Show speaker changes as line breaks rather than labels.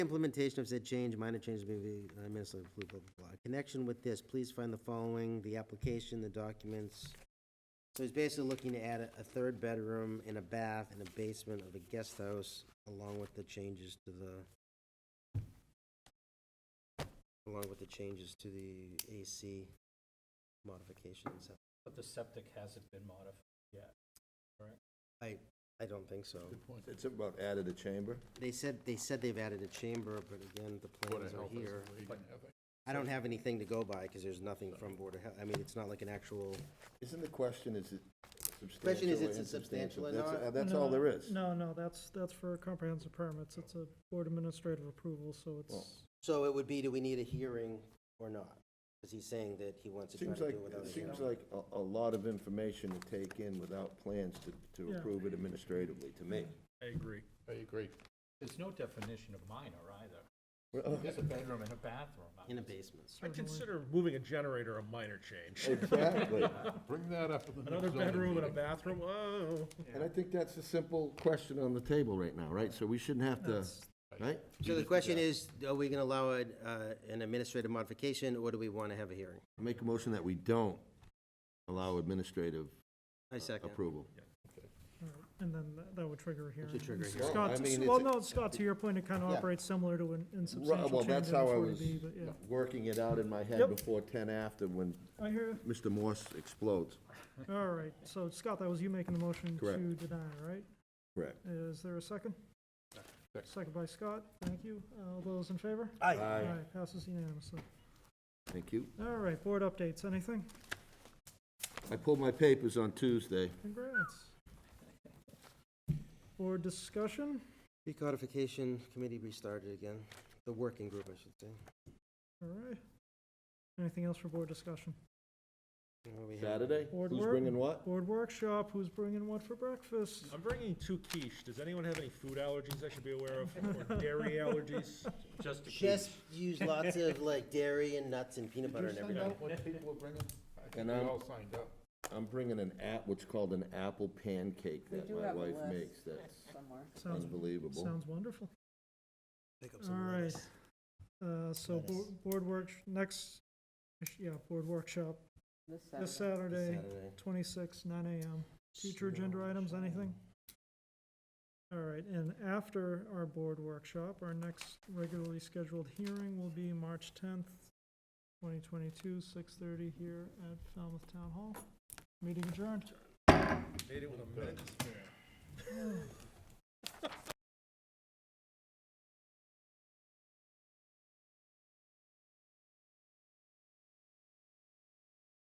Implementation of said change, minor changes may be, uh, minutes of blah, blah, blah. In Connection with this, please find the following, the application, the documents. So he's basically looking to add a, a third bedroom and a bath and a basement of a guest house, along with the changes to the, along with the changes to the AC modifications.
But the septic hasn't been modified yet.
I, I don't think so.
It's about added a chamber.
They said, they said they've added a chamber, but again, the plans are here. I don't have anything to go by, because there's nothing from Board of Health, I mean, it's not like an actual,
Isn't the question, is it substantial?
Question is, it's
or
substantial
insubstantial?
or
That's-
not?
uh, That's
No, no,
all there
no.
is.
No, no, that's, that's for comprehensive permits. It's a board administrative approval, so
Well,
it's,
so it would be, do we need a hearing or not? Because he's saying that he wants to try
Seems
to
like,
do it without a
it
hearing.
seems like a, a lot of information to take in without plans to, to
Yeah.
approve it administratively, to me.
I agree.
I agree.
There's no definition of minor either.
Well,
oh.
There's a bedroom and a bathroom.
In a basement.
I consider moving a generator a minor change.
Exactly,
Bring that up at the next
Another
zoning
bedroom and a
meeting.
bathroom, oh.
and I think that's a simple question on the table right now, right? So we shouldn't have to,
that's,
right?
So the question is, are we gonna allow an, uh, an administrative modification, or do we want to have a hearing?
Make a motion that we don't allow administrative
I second.
approval.
all right, uh, and then tha- that would trigger a hearing.
should trigger a
And
hearing.
Well, I
Scott,
mean,
well,
it's-
no, Scott, to your point, it kind of
Yeah.
operates similar to an
Right,
insubstantial
Well,
change
that's
in a
how I was
40B, but yeah.
working it out in my head
Yep.
before ten after when
I hear, you.
Mr. Morse explodes.
all right, so Scott, that was you making the motion
Correct.
to deny, right?
Correct.
Is there a second?
Second.
Second by Scott, thank you. Uh, All those in favor?
Aye.
Passes unanimously.
Thank you.
All right, board updates, anything?
I pulled my papers on Tuesday.
Congrats. Board discussion?
Recodification committee restarted again, the working group, I should say.
All right. Anything else for board discussion?
You know, we had-
Saturday?
Board
Who's
work?
bringing what?
Board workshop, who's bringing what for breakfast?
I'm bringing two quiche. Does anyone have any food allergies I should be aware of, or dairy allergies?
Just to keep,
Just use lots of like dairy and nuts and peanut butter and
Did you
everything.
send out what people were bringing? I think
And
we
I'm-
all signed up.
I'm bringing an app, what's called an apple pancake
We
that
do
my
have a
wife
list
makes. That's
Somewhere.
Sounds,
unbelievable.
sounds wonderful.
Pick up
All
some
right.
lettuce.
Uh, so bo- board work, next, yeah, board workshop
This
this
Saturday.
Saturday,
Saturday.
twenty-six, nine AM. Future agenda items, anything? All right, and after our board workshop, our next regularly scheduled hearing will be March tenth, twenty twenty-two, six thirty here at Falmouth Town Hall. Meeting adjourned.
Made it with a minute.